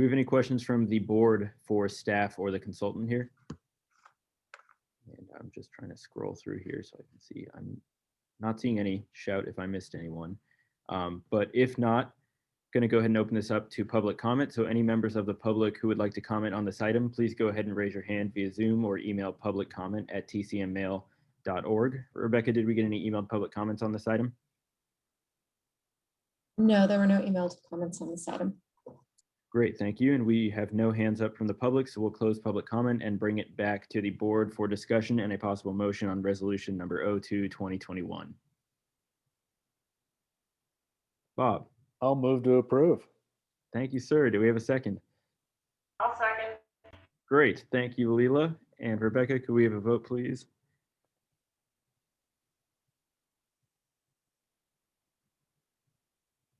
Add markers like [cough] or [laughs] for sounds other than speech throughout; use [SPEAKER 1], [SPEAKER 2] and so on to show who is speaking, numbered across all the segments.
[SPEAKER 1] we have any questions from the board for staff or the consultant here? And I'm just trying to scroll through here so I can see. I'm not seeing any shout if I missed anyone. Um, But if not, going to go ahead and open this up to public comment. So any members of the public who would like to comment on this item, please go ahead and raise your hand via Zoom or email publiccomment@tcmmail.org. Rebecca, did we get any emailed public comments on this item?
[SPEAKER 2] No, there were no emailed comments on this item.
[SPEAKER 1] Great, thank you. And we have no hands up from the public, so we'll close public comment and bring it back to the board for discussion and a possible motion on resolution number 02, 2021. Bob,
[SPEAKER 3] I'll move to approve.
[SPEAKER 1] thank you, sir. Do we have a second?
[SPEAKER 4] I'll second.
[SPEAKER 1] Great, thank you, Leela. And Rebecca, could we have a vote, please?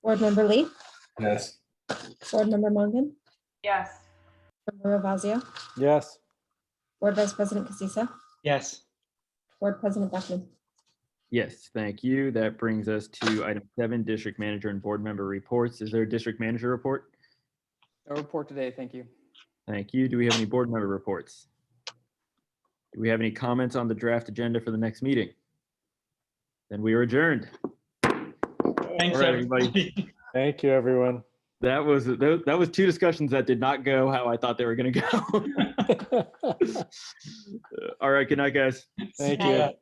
[SPEAKER 2] Board Member Lee,
[SPEAKER 5] Yes.
[SPEAKER 2] Board Member Mongan,
[SPEAKER 4] Yes.
[SPEAKER 2] Member Ravazio,
[SPEAKER 3] Yes.
[SPEAKER 2] Board Vice President Casissa,
[SPEAKER 5] Yes.
[SPEAKER 2] Board President Beckman.
[SPEAKER 1] Yes, thank you. That brings us to item seven, district manager and board member reports. Is there a district manager report?
[SPEAKER 6] No report today, thank you.
[SPEAKER 1] Thank you. Do we have any board member reports? Do we have any comments on the draft agenda for the next meeting? Then we are adjourned.
[SPEAKER 5] Thanks,
[SPEAKER 1] All right, everybody.
[SPEAKER 5] everybody.
[SPEAKER 3] Thank you, everyone. [laughs]
[SPEAKER 1] That was, tho- that was two discussions that did not go how I thought they were going to go. [laughs] All right, good night, guys.
[SPEAKER 3] Thank you.